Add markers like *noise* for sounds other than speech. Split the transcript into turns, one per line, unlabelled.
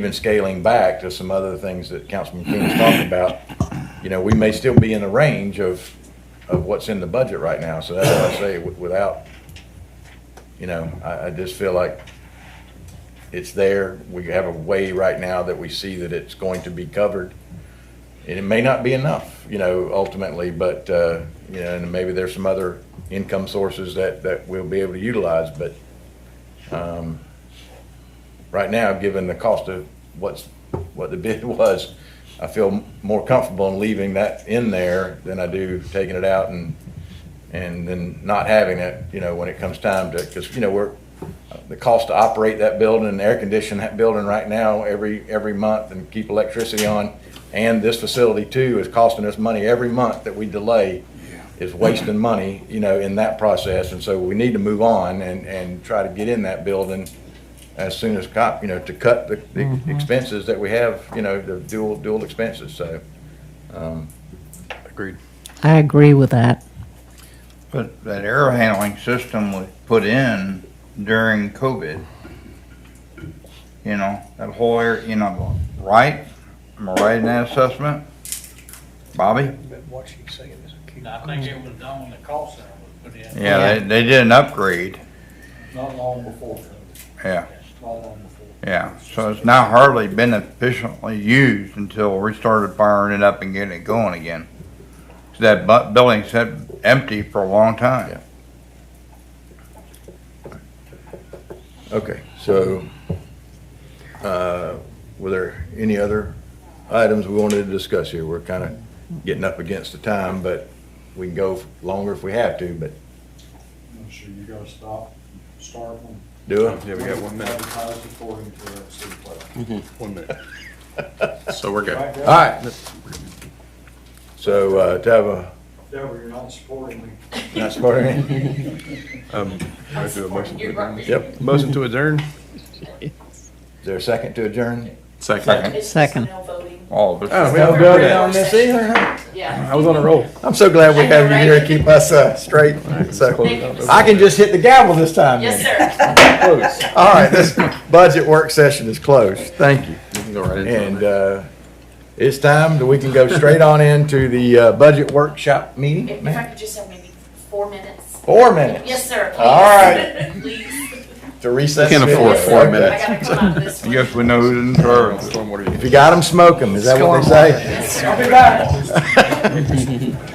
even scaling back to some other things that Councilman King was talking about, you know, we may still be in the range of, of what's in the budget right now. So that's why I say wi- without, you know, I, I just feel like it's there. We have a way right now that we see that it's going to be covered. And it may not be enough, you know, ultimately, but, uh, you know, and maybe there's some other income sources that, that we'll be able to utilize, but, right now, given the cost of what's, what the bid *laughs* was, I feel more comfortable in leaving that in there than I do taking it out and, and then not having it, you know, when it comes time to, because, you know, we're, the cost to operate that building and air condition that building right now every, every month and keep electricity on, and this facility too is costing us money every month that we delay is wasting money, you know, in that process. And so we need to move on and, and try to get in that building as soon as cop, you know, to cut the the expenses that we have, you know, the dual, dual expenses, so.
Agreed.
I agree with that.
But that air handling system was put in during COVID. You know, that whole air, you know, right? Am I right in that assessment? Bobby?
But what she's saying is a key.
And I think it was done when the call center was put in,
Yeah, they, they did an upgrade,
not long before COVID,
yeah,
not long before.
yeah. So it's now hardly been efficiently used until we started firing it up and getting it going again. So That bu- building sat empty for a long time.
Okay, so, uh, were there any other items we wanted to discuss here? We're kind of getting up against the time, but we can go longer if we have to, but
I'm sure you gotta stop, start one.
do it.
Yeah, Oh, we got one minute.
Advertise according to the city plan.
One minute. So we're good.
*laughs*
Right,
All
Deborah?
right. So, uh, to have a,
Deborah, you're not supporting me.
not supporting, yep.
Um, Motion to adjourn?
Is there a second to adjourn?
Second. Oh,
It's just
Second.
mail voting.
All of us.
we don't
do
it
it
on
on
this either,
Yeah.
I was on a roll.
I'm so glad we have you here to keep us, uh, straight, so. I can just hit the gavel this time then.
Yes, sir.
All right, this budget work session is closed. Thank you.
You can go right into it.
And uh, it's time that we can go straight on into the uh, budget workshop meeting.
If if I could just have maybe four minutes.
Four minutes.
Yes, sir.
All
please. Please.
To recess.
Can't afford
Yes, sir.
four
Okay.
minutes.
I gotta come out of this
I
one.
guess we know who's in charge.
Stormwater.
If you got them, smoke them. Is that what they say? *laughs*
*laughs*
Yes, sir.
back.